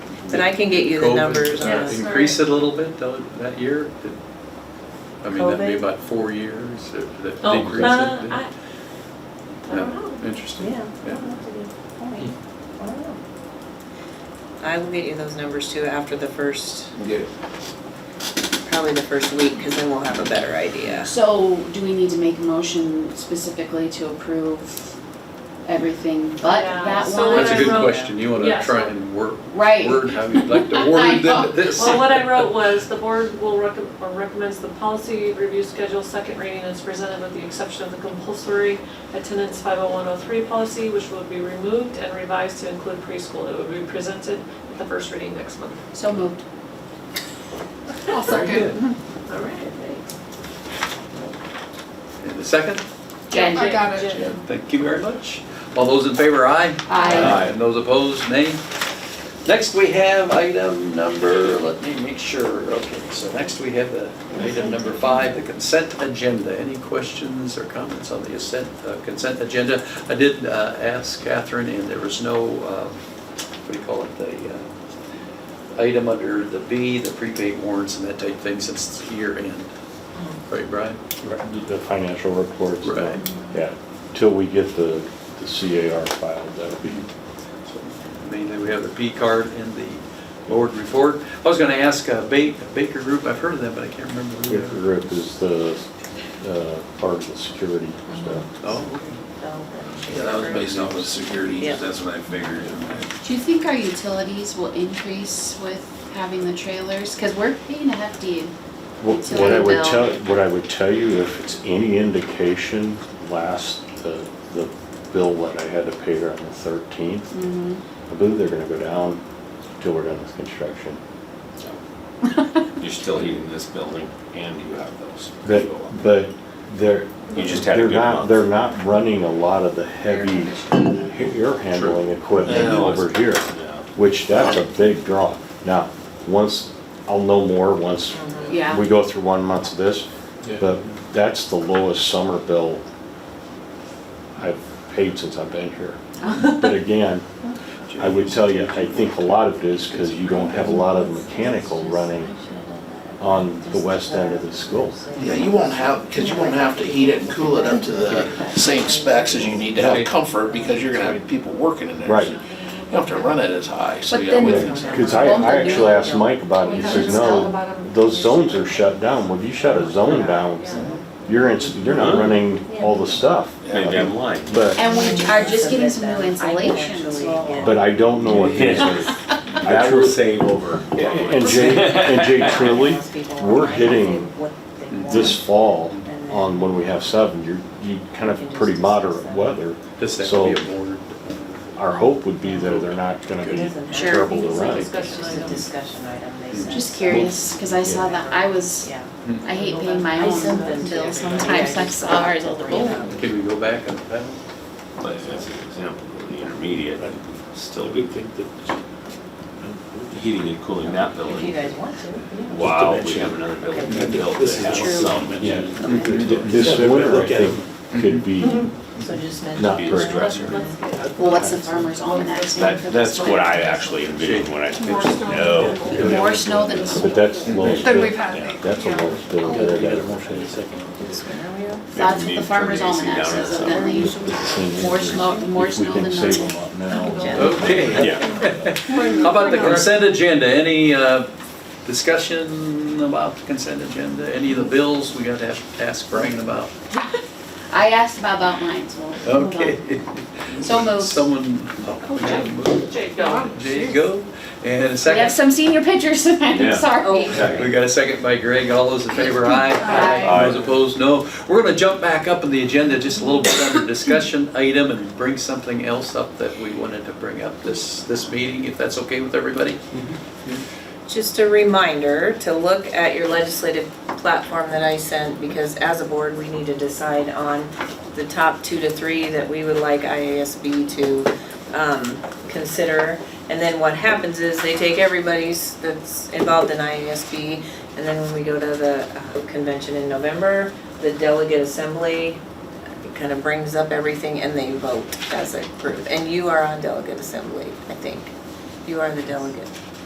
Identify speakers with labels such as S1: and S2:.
S1: And I can get you the
S2: COVID,
S1: numbers
S2: uh,
S1: on it.
S2: Increase it a little bit though, that year? Did- I mean, that'd be
S1: COVID?
S2: about four years that that
S3: Oh,
S2: decrease.
S3: uh,
S2: it did.
S3: I,
S2: No,
S3: I don't know.
S2: Interesting.
S1: Yeah.
S2: Yeah.
S1: I will get you those numbers too after the first,
S4: Yeah.
S1: probably the first week, because then we'll have a better idea.
S5: So do we need to make a motion specifically to approve everything but
S3: Yeah,
S5: that
S3: so
S5: one?
S3: when
S2: That's a
S3: I
S2: good
S3: wrote-
S2: question. You want
S3: Yeah,
S2: to try
S3: so-
S2: and word,
S5: Right.
S2: word how you'd like to
S5: I
S2: word
S5: know.
S2: th- this.
S3: Well, what I wrote was, the board will recom- or recommends the policy review schedule, second reading is presented with the exception of the compulsory attendance 50103 policy, which will be removed and revised to include preschool. It will be presented at the first reading next month.
S5: So moved.
S3: I'll
S2: Very good.
S3: All right, thanks.
S2: And the second?
S5: Jen?
S6: I got it.
S3: Jen.
S2: Thank you very much. All those in favor, aye?
S5: Aye.
S2: And those opposed, nay? Next, we have item number, let me make sure, okay, so next we have the item number five, the consent agenda. Any questions or comments on the consent, uh, consent agenda? I did uh, ask Catherine, and there was no, uh, what do you call it, the uh, item under the B, the prepaid warrants and that type of thing, since it's year end. Right, Brian?
S7: The financial reports.
S2: Right.
S7: Yeah, till we get the, the CAR filed, that'll be,
S2: So Mainly, we have the P card and the board report. I was gonna ask uh, Ba- Baker Group, I've heard of them, but I can't remember who
S7: if the
S2: they are.
S7: group is the, uh, part of the security stuff.
S2: Oh, okay.
S4: Yeah, that was based off of security,
S1: Yeah.
S4: that's what I figured. and I-
S5: Do you think our utilities will increase with having the trailers? Because we're paying a hefty,
S7: What what I would tell, what I would tell you, if it's any indication, last, the, the bill that I had to pay her on the thirteenth,
S5: Mhm.
S1: Mm-hmm.
S7: I believe they're gonna go down till we're done with construction.
S4: You're still heating this building and you have those.
S7: But, but they're,
S4: You just had a
S7: they're
S4: good
S7: not,
S4: month.
S7: they're not running a lot of the heavy air handling equipment
S4: Yeah.
S7: over here,
S4: Yeah.
S7: which that's a big draw. Now, once, I'll know more once
S5: yeah.
S7: we go through one month of this, but that's the lowest summer bill I've paid since I've been here. But again, I would tell you, I think a lot of it is because you don't have a lot of mechanical running on the west end of the school.
S8: Yeah, you won't have, because you won't have to heat it and cool it up to the same specs as you need to have comfort, because you're gonna have people working in there.
S7: Right.
S8: You don't have to run it as high, so
S5: But
S8: yeah.
S5: then-
S8: we-
S7: Because I, I actually asked Mike about it, he says, no, those zones are shut down, well, if you shut a zone down, you're in, you're not running all the stuff.
S4: Maybe I'm lying.
S7: But,
S5: And we are just getting some new insulation as
S1: Actually,
S5: well.
S1: yeah.
S7: but I don't know what these are. I
S9: That will
S7: truly,
S9: save over.
S7: and Jay, and Jay truly, we're hitting this fall on when we have seven, you're, you kind of pretty moderate weather.
S2: Does that
S7: So-
S2: could be a board?
S7: Our hope would be that they're not gonna be
S1: Sure.
S7: trouble to run.
S1: It's just a discussion item, they said.
S5: Just curious, because I saw that, I was,
S1: Yeah.
S5: I hate paying my
S1: I sent them
S5: own
S1: to
S5: bills
S1: everybody.
S5: sometimes, I saw Oh, ours on the roll.
S2: Can we go back on that?
S4: Like, as an example, the intermediate, still
S9: I
S4: good
S9: would think that
S4: heating and cooling that
S1: If you
S4: building.
S1: guys want to, yeah.
S4: Wow, we have another building
S1: Okay.
S4: that built
S9: This
S4: that
S9: is
S4: has
S9: true.
S4: some.
S7: Yeah.
S9: Mhm.
S7: This winter, I think, could be,
S1: So just mention.
S7: Not
S4: Be a
S7: very
S4: stressor.
S3: Let's get-
S5: Well, what's the farmer's almanac saying for
S4: That,
S5: this
S4: that's what
S5: one?
S4: I actually envisioned when I pitched, no.
S5: More snow than.
S7: but that's the lowest
S6: Then we've
S7: bid,
S6: had.
S4: Yeah.
S7: that's the lowest bid that I
S9: got a
S7: got.
S9: motion in a second.
S5: That's what
S4: Maybe
S5: the
S4: turn
S5: farmer's
S4: the AC down
S5: almanac
S4: in
S5: says
S4: the
S5: evidently. More snow, more
S7: If we
S5: snow
S7: can
S5: than
S7: save
S5: nothing.
S7: them up now.
S2: Okay.
S4: Yeah,
S2: How about the consent agenda? Any uh, discussion about the consent agenda? Any of the bills we got to have- ask Brian about?
S5: I asked about about mine, so. hold on.
S2: Okay.
S5: So moved.
S2: Someone, oh, yeah, move.
S3: Jake, go.
S2: there you go. And a
S5: We have
S2: second.
S5: some senior pictures, I'm
S4: Yeah.
S5: sorry.
S2: We got a second by Greg, all those in favor, aye.
S5: Aye.
S2: Those opposed, no. We're gonna jump back up in the agenda just a little bit under discussion item and bring something else up that we wanted to bring up this, this meeting, if that's okay with everybody?
S1: Just a reminder to look at your legislative platform that I sent, because as a board, we need to decide on the top two to three that we would like IASB to um, consider. And then what happens is they take everybody's that's involved in IASB, and then when we go to the uh, convention in November, the delegate assembly kind of brings up everything and they vote as a group. And you are on delegate assembly, I think. You are the delegate.